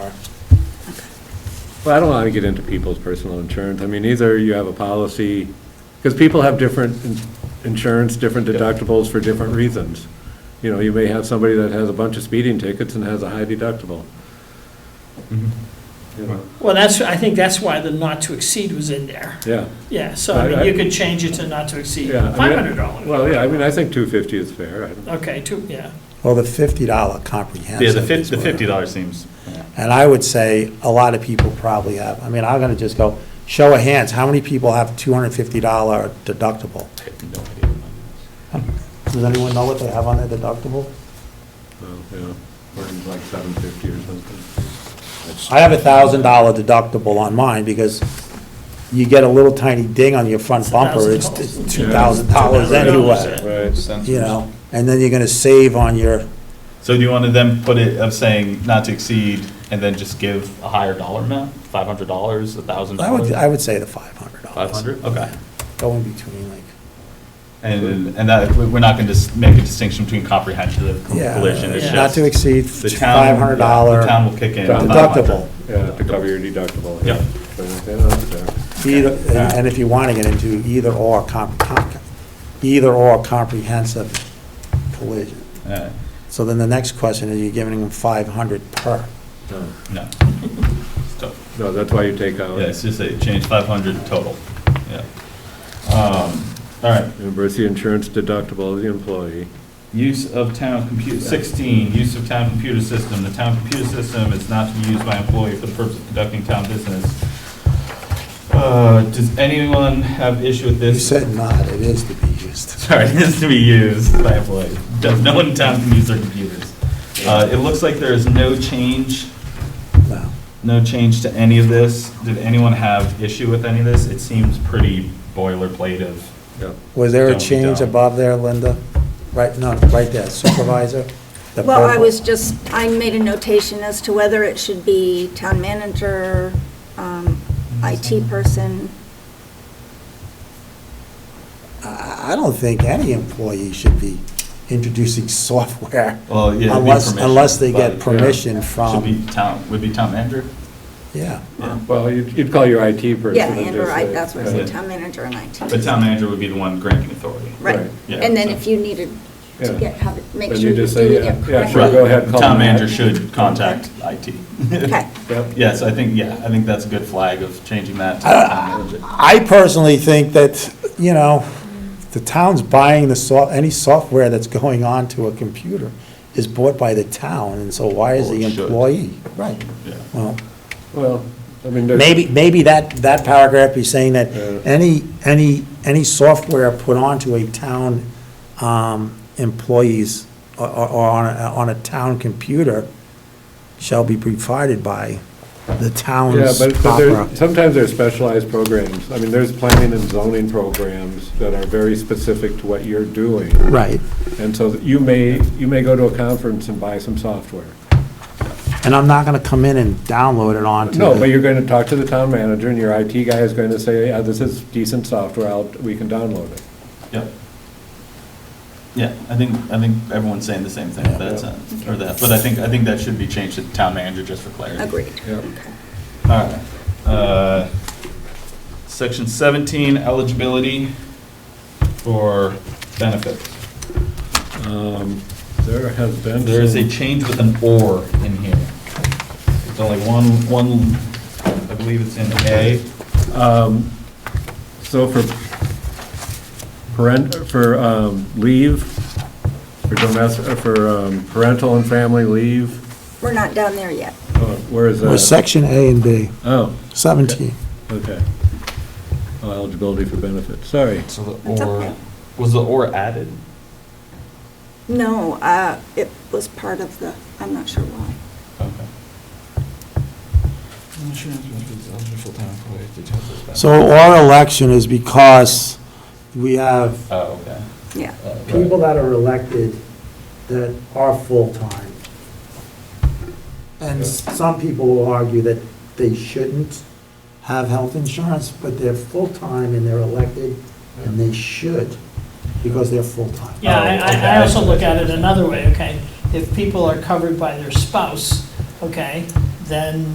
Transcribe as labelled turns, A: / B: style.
A: Well, I don't want to get into people's personal insurance. I mean, either you have a policy, because people have different in- insurance, different deductibles for different reasons. You know, you may have somebody that has a bunch of speeding tickets and has a high deductible. You know,
B: Well, that's, I think that's why the not to exceed was in there.
A: Yeah,
B: Yeah, so I mean,
A: I- I-
B: you could change it to not to exceed
A: yeah. I mean,
B: $500.
A: Well, Oh, yeah, I mean, I think 250 is fair. I don't-
B: Okay, two, yeah.
C: Well, the $50 comprehensive.
D: Yeah, the fif-
C: is
D: the
C: what I-
D: fifty dollars seems, yeah.
C: And I would say a lot of people probably have. I mean, I'm going to just go, show of hands, how many people have $250 deductible?
D: I have no idea.
C: Does anyone know what they have on their deductible?
A: well, Oh, yeah. Or it's like 750 or something.
C: I have a $1,000 deductible on mine because you get a little tiny ding on your front bumper, it's
B: $1,000.
C: $2,000
B: Yeah.
C: anyway,
A: Right.
C: you know? And then you're going to save on your,
D: So do you want to then put it of saying not to exceed and then just give a higher dollar amount, five hundred dollars, a thousand
C: I would,
D: dollars?
C: I would say the $500.
D: Five hundred, okay.
C: Go in between, like,
D: And, and that, we're not going to make a distinction between comprehensive
C: yeah.
D: collision, it's
B: Yeah.
D: just.
C: Not to exceed
D: the town-
C: $500
D: The town will kick in.
C: deductible.
A: Yeah, to cover your deductible.
D: Yeah.
A: But, yeah, that's fair.
C: Either, and and if you want to get into either or, comp- comp- either or comprehensive collision.
D: Uh,
C: So then the next question is, you're giving them 500 per.
A: No,
D: No. So,
A: No, that's why you take out.
D: Yeah, it's just a change, five hundred total, yeah. Um, All right,
A: Reimburse the insurance deductible of the employee.
D: Use of town computer, 16, use of town computer system. The town computer system is not to be used by employee for the purpose of conducting town business. Uh, Does anyone have issue with
C: You
D: this?
C: said not, it is to be used.
D: Sorry, it is to be used by employees. Does No one in town can use their computers. Uh, It looks like there is no change,
C: No.
D: no change to any of this. Did anyone have issue with any of this? It seems pretty boilerplate of,
A: Yeah.
C: Was there a
D: Don't be
C: change
D: dumb.
C: above there, Linda? Right, no, right there, supervisor? the
E: Well, I
C: purple.
E: was just, I made a notation as to whether it should be town manager, um,
A: Mm-hmm.
E: IT person.
C: I I don't think any employee should be introducing software
D: well, yeah. it'd be
C: unless,
D: permission,
C: unless they get
D: but-
C: permission
D: Should
C: from,
D: be town, would be town manager?
C: yeah.
A: Well, you'd you'd call your IT person.
E: Um, Yeah,
A: and
E: and or
A: just
E: I,
A: say-
E: that's what I
D: Yeah.
E: said, town manager and
D: But
E: IT.
D: town manager would be the one granting authority.
E: Right.
A: Right.
D: Yeah.
E: And then if you needed to
A: Yeah.
E: get, have it, make
A: Then
E: sure
A: you
E: you're
A: just say,
E: doing
A: yeah,
E: it
A: yeah, sure,
D: Right.
A: go
E: correctly.
A: ahead. call
D: Town
A: them back.
D: manager should contact IT.
E: Okay.
A: Yep.
D: Yes, I think, yeah, I think that's a good flag of changing that to town manager.
C: I personally think that, you know, the town's buying the soft, any software that's going on to a computer is bought by the town, and so why is
A: Oh,
D: Or
C: the
D: it should.
C: employee? Right.
D: Yeah.
C: Well,
A: Well, I mean, there's.
C: maybe, maybe that, that paragraph is saying that
A: Yeah.
C: any, any, any software put onto a town um, employees or, or or on, a- on a town computer shall be provided by the
A: Yeah,
C: town's
A: but but
C: proper.
A: there's, sometimes there's specialized programs. I mean, there's planning and zoning programs that are very specific to what you're doing.
C: Right.
A: And so that you may, you may go to a conference and buy some software.
C: And I'm not gonna come in and download it onto.
A: No,
C: the-
A: but you're going to talk to the town manager and your IT guy is going to say, yeah, this is decent software, I'll, we can download it.
D: Yep. Yeah, I think, I think everyone's saying the same thing with that sentence, or that, but I think, I think that should be changed to town manager just for clarity.
E: Agreed.
A: Yep.
D: All right. Uh, Section 17, eligibility for benefits.
A: Um, There has been.
D: There is a
A: some-
D: change with an or in here. It's only one, one, I believe it's in A.
A: Um, So for parent, for um, leave, for domestic, for um, parental and family leave,
E: We're not down there yet.
A: oh, where is that?
C: Well, section A and B,
A: Oh,
C: seventeen.
A: okay. Oh, Eligibility for benefits, sorry.
D: So the
E: That's okay.
D: was the or added?
E: No, uh, it was part of the, I'm not sure why.
D: Okay.
C: So our election is because we have
D: Oh, okay.
E: Yeah.
D: Uh, right.
C: people that are elected that are full-time. And s- some people will argue that they shouldn't have health insurance, but they're full-time and they're elected, and they should, because they're full-time.
B: Yeah, I-
D: okay,
B: I, I
D: I
B: also
D: see.
B: look at it another way, okay? If people are covered by their spouse, okay, then